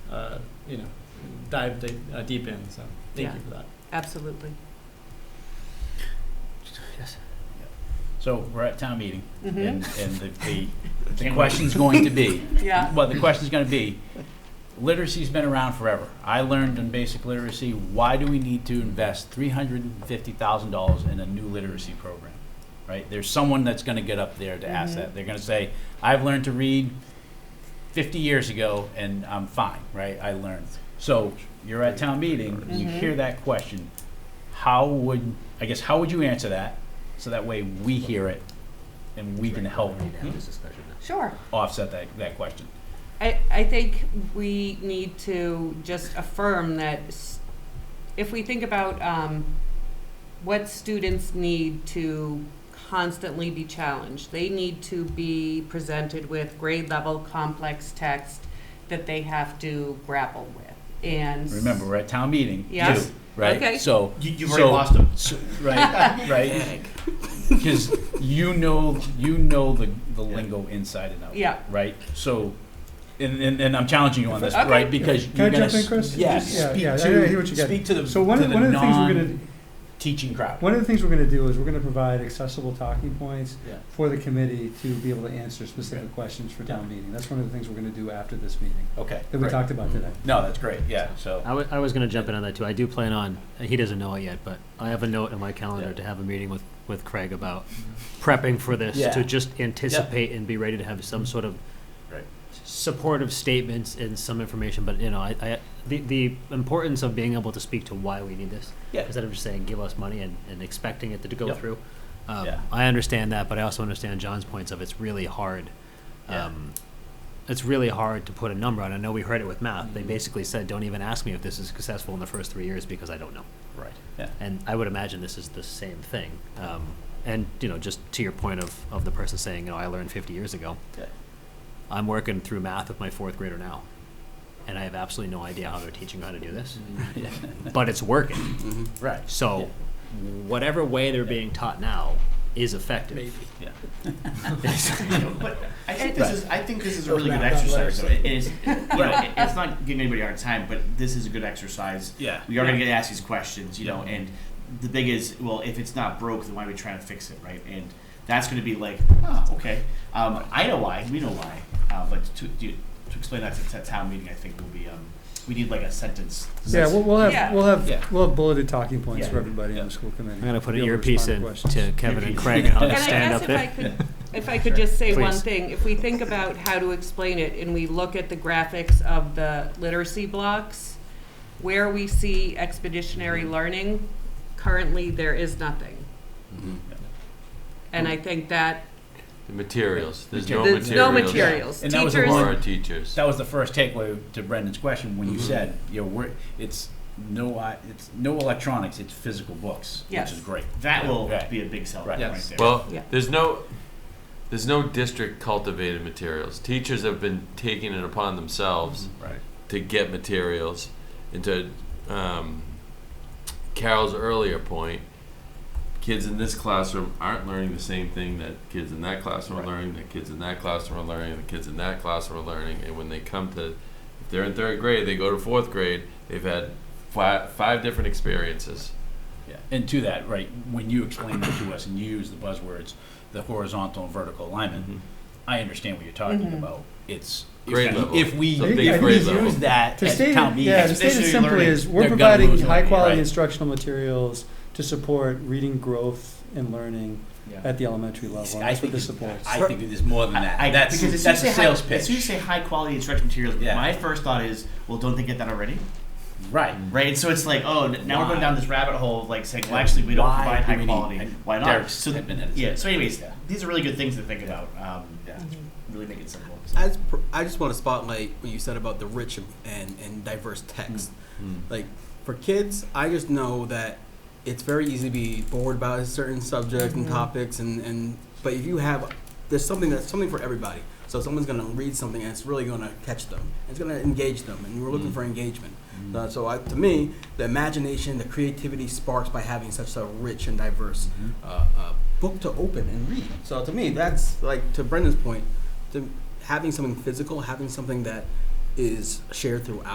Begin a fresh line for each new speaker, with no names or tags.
uh, you know, dive deep, uh, deep in, so thank
Yeah.
you for that.
Absolutely.
Yes. So we're at town meeting,
Mm-hmm.
and, and the, the, the
Can't
question's going to be,
Yeah.
well, the question's gonna be, literacy's been around forever. I learned in basic literacy, why do we need to invest three hundred and fifty thousand dollars in a new literacy program? Right? There's someone that's gonna get up there to ask
Mhm.
that. They're gonna say, I've learned to read fifty years ago, and I'm fine, right? I learned. So you're at town meeting, you
Mhm.
hear that question. How would, I guess, how would you answer that? So that way we hear it and we can help
Sure.
offset that, that question.
I, I think we need to just affirm that s- if we think about um, what students need to constantly be challenged, they need to be presented with grade level complex text that they have to grapple with. And
Remember, we're at town meeting,
Yeah.
too, right?
Okay.
So,
You, you've
already lost
them.
so- right, right? Because you know, you know the, the lingo inside and out.
Yeah.
Right? So, and, and, and I'm challenging you on this,
Okay.
right? Because
Can I
you're gonna.
jump in,
s-
Chris?
Yeah,
Just- yeah,
speak
yeah, I hear what
to,
you're getting.
speak to the,
So one
to
of-
the
one of the things we're gonna-
non-teaching crowd.
One of the things we're gonna do is we're gonna provide accessible talking points
Yeah.
for the committee to be able to answer specific questions for town meeting. That's one of the things we're gonna do after this meeting
Okay.
that we
great.
talked about today.
No, that's great, yeah, so.
I wa- I was gonna jump in on that too. I do plan on, he doesn't know it yet, but I have a note in my
Yeah.
calendar to have a meeting with, with Craig about prepping for this,
Yeah.
to just anticipate and be ready to have some sort of
Right.
supportive statements and some information, but you know, I, I, the, the importance of being able to speak to why we need this.
Yeah.
Instead of just saying, give us money and, and expecting it to go
Yep.
through. Um,
Yeah.
I understand that, but I also understand John's points of it's really hard.
Yeah.
Um, it's really hard to put a number on. I know we heard it with math. They basically said, don't even ask me if this is successful in the first three years because I don't know.
Right. Yeah.
And I would imagine this is the same thing. Um, and, you know, just to your point of, of the person saying, you know, I learned 50 years ago.
Yeah.
I'm working through math with my fourth grader now. And I have absolutely no idea how they're teaching how to do this,
Mm-hmm.
but it's working.
Right.
So,
Yeah.
whatever way they're being taught now is effective.
Yeah.
But I think this is I think this is a really good exercise. though. It is, you know, it- it's not giving anybody a hard time, but this is a good exercise.
Yeah.
We are going to get asked these questions, you know, and the big is well, if it's not broke, then why are we trying to fix it, right? And that's going to be like, ah, okay, um, I know why, we know why, uh, but to to to explain that to, to town meeting, I think will be um, we need like a sentence.
Yeah, we'll, we'll
Yeah.
have, we'll
Yeah.
have, we'll have bulleted talking points
Yeah.
for everybody
Yeah.
in the school committee.
I'm going to put
Be
an
able
earpiece
respond
in
to questions.
to Kevin and
Earpiece.
Craig, and I'll
And
just
I
stand
guess if
up
I
there.
could, if I could just say one
Please.
thing, if we think about how to explain it and we look at the graphics of the literacy blocks, where we see expeditionary learning, currently there is nothing. And I
Mm-hmm.
think that,
The materials, there's no
Materials.
there's no materials.
materials.
And that was a
Teachers,
For our teachers.
That was the first takeaway to Brendan's question when you
Mm-hmm.
Mhm.
said, you know, we're, it's no, i- it's no electronics, it's physical books, which
Yes.
is great.
That will
Right.
be a big seller
Right.
right,
Yes.
there.
Well,
Yeah.
there's no, there's no district cultivated materials. Teachers have been taking it upon themselves
Right.
to get materials. And to um, Carol's earlier point, kids in this classroom aren't learning the same thing that kids in that classroom
Right.
are learning, that kids in that classroom are learning, and the kids in that classroom are learning. And when they come to, if they're in third grade, they go to fourth grade, they've had five, five different experiences.
Yeah. And to that, right, when you explain that to us and you use the buzzwords, the horizontal and vertical alignment,
Mm-hmm.
I understand what you're talking
Mhm.
about. It's if
Grade
we-
level.
If we,
So
if
big
we
grade level.
use that
To
at
state
town
it, yeah, to
meeting,
state it
Expeditionary
simply
learning.
is, we're
They're gonna
providing
lose money, right.
high-quality instructional materials to support reading growth and learning at the elementary level. and
I
That's what
think,
this
it's-
supports.
I think it is more than that.
I, I,
That's,
because as soon
that's
as
a
you say high-
sales
As soon as you
pitch.
say high quality instruction materials,
Yeah.
my first thought is, well, don't they get that already?
Right.
Right, and so it's like, oh, n- now
Why?
we're going down this rabbit hole of like saying, well, actually, we don't
Why
provide
do
high
we need-
quality.
and
Why not?
Derek's
so,
had been at it.
yeah. So, anyways, these are really good things to think about. Um,
Yeah.
Really make it simple.
As per, I just want to spotlight what you said about the rich and, and, and diverse text. Like for kids, I just know that it's very easy to be bored about a certain subject and topics, and, and but if you have there's something that's something for everybody. So someone's gonna read something and it's really gonna catch them. It's gonna engage them, and we're looking for engagement.
Hmm.
Uh, so I, to me, the imagination, the creativity sparks by having such a rich and diverse uh, uh, book to open and read. So to me, that's like to Brendan's point, to having something physical, having something that is shared throughout.